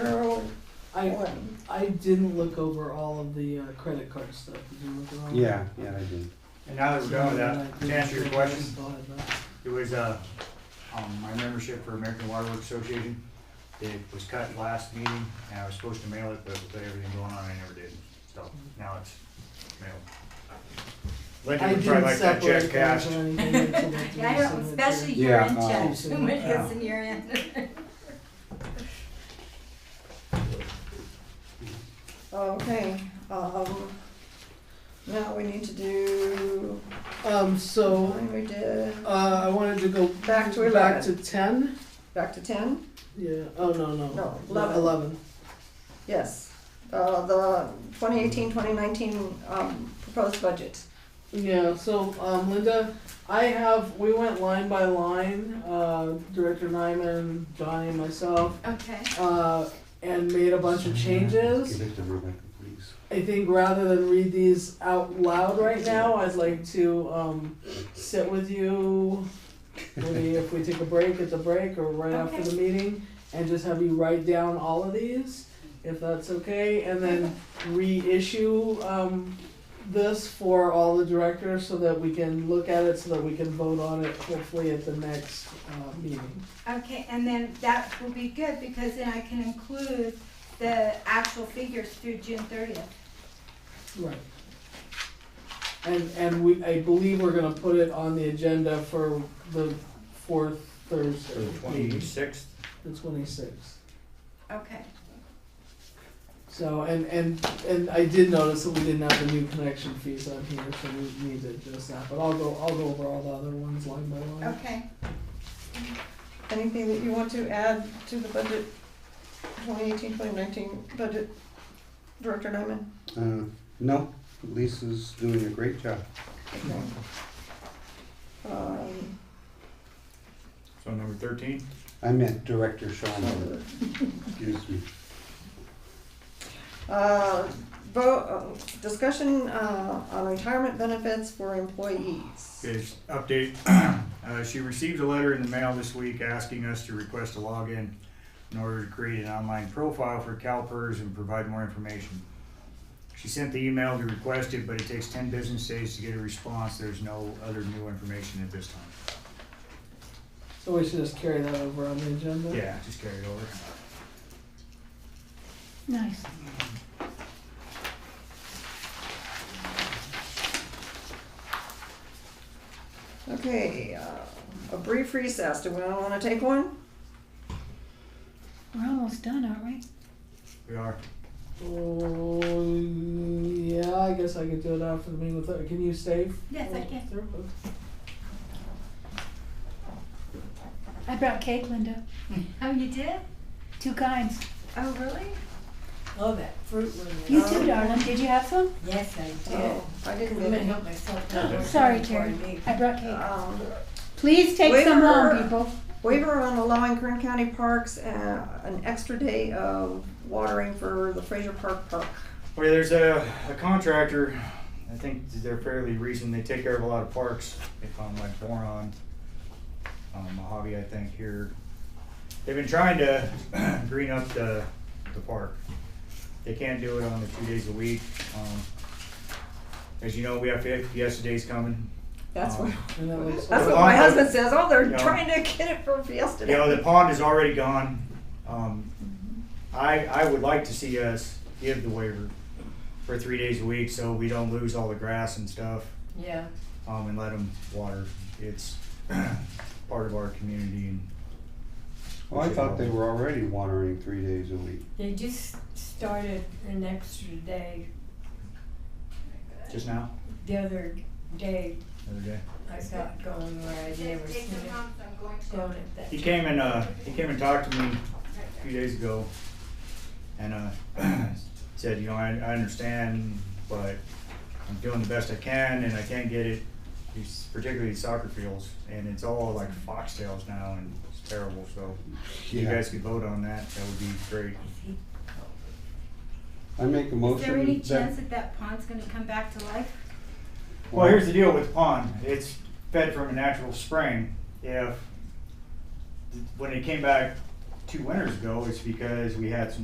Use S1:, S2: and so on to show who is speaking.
S1: I, I didn't look over all of the uh, credit card stuff. Did you look it over?
S2: Yeah, yeah, I did.
S3: And now that we're done with that, to answer your question,
S1: Thought of that.
S3: it was, uh, um, my membership for American Water Works Association. It was cut last meeting, and I was supposed to mail it, but with everything going on, I never did, so now it's mailed.
S1: I
S3: Linda would probably
S1: didn't
S3: like that
S1: separate
S3: check
S1: those
S3: cashed.
S1: or anything until it
S4: Yeah, I
S1: was
S4: don't,
S1: submitted.
S4: especially
S2: Yeah,
S4: year-end
S2: uh,
S4: checks, when it
S3: Yeah.
S4: hits in year-end.
S5: Okay, um, now we need to do,
S1: Um, so,
S5: we did,
S1: uh, I wanted to go
S5: Back to 11.
S1: Back to ten,
S5: back to ten,
S1: yeah, oh, no, no.
S5: No, 11.
S1: Eleven.
S5: yes. Uh, the 2018, 2019, um, proposed budget.
S1: Yeah, so um, Linda, I have, we went line by line, uh, Director Nyman, Johnny, and myself,
S4: Okay.
S1: uh, and made a bunch of changes.
S2: Give it to Rebecca, please.
S1: I think rather than read these out loud right now, I'd like to um, sit with you. Maybe if we take a break, it's a break, or right after the meeting, and just have you write down all of these, if that's okay, and then reissue um, this for all the directors so that we can look at it, so that we can vote on it hopefully at the next uh, meeting.
S4: Okay, and then that will be good, because then I can include the actual figures through June thirtieth.
S1: Right. And, and we, I believe we're gonna put it on the agenda for the fourth Thursday.
S3: Twenty-sixth,
S1: The twenty-sixth.
S4: Okay.
S1: So, and, and, and I did notice that we didn't have the new connection fees on here, so we need to adjust that, but I'll go, I'll go over all the other ones line by line.
S4: Okay.
S5: Anything that you want to add to the budget, 2018, 2019 budget, Director Nyman?
S2: Uh, no, Lisa's doing a great job.
S5: Okay. Um,
S3: so number thirteen.
S2: I meant Director Sean
S3: Oh.
S2: Miller, excuse me.
S5: Uh, vote, uh, discussion, uh, on retirement benefits for employees.
S3: Is update, uh, she received a letter in the mail this week asking us to request a login in order to create an online profile for CalPERS and provide more information. She sent the email to request it, but it takes ten business days to get a response. There's no other new information at this time.
S1: So we should just carry that over on the agenda?
S3: Yeah, just carry it over.
S4: Nice.
S5: Okay, uh, a brief recess, do we all wanna take one?
S6: We're almost done, aren't we?
S3: We are.
S1: Oh, yeah, I guess I could do it after the meeting with, her. can you save?
S4: Yes, I can.
S1: Through?
S6: I brought cake, Linda.
S4: Oh, you did?
S6: Two kinds.
S4: Oh, really?
S7: Oh, that fruit one.
S6: You
S4: Oh.
S6: too, darling. Did you have some?
S7: Yes, I did.
S5: Oh, I didn't
S7: Couldn't
S5: get it.
S7: help myself.
S6: Sorry, Terry. I brought cake.
S5: Um,
S6: Please take
S5: Wait
S6: some
S5: for
S6: home,
S5: her.
S6: people.
S5: Waiver on allowing Kern County Parks, uh, an extra day of watering for the Fraser Park Park.
S3: Well, there's a, a contractor, I think they're fairly recent, they take care of a lot of parks, they found like Boron, um, Mojave, I think, here. They've been trying to green up the, the park. They can't do it on the two days a week, um, as you know, we have Fiesta Days coming.
S5: That's what,
S3: Um,
S1: And that looks.
S5: that's what
S3: Well,
S5: my
S3: I-
S5: husband says, oh, they're
S3: Yeah.
S5: trying to get it for Fiesta
S3: You know,
S5: Day.
S3: the pond is already gone. Um, I, I would like to see us give the waiver for three days a week so we don't lose all the grass and stuff,
S7: Yeah.
S3: um, and let them water. It's part of our community and.
S2: Well, I thought they were already watering three days a week.
S7: They just started an extra day
S3: Just now,
S7: the other day.
S3: the other day.
S7: I got going where I never seen it going at that.
S3: He came and, uh, he came and talked to me a few days ago and, uh, said, you know, I, I understand, but I'm doing the best I can and I can't get it, these- particularly soccer fields, and it's all like foxtails now and it's terrible, so if you
S2: Yeah.
S3: guys could vote on that, that would be great.
S2: I make a
S4: Is there any
S2: motion
S4: chance that
S2: that.
S4: that pond's gonna come back to life?
S3: Well, here's the deal with the pond. It's fed from a natural spring. If, when it came back two winters ago, it's because we had some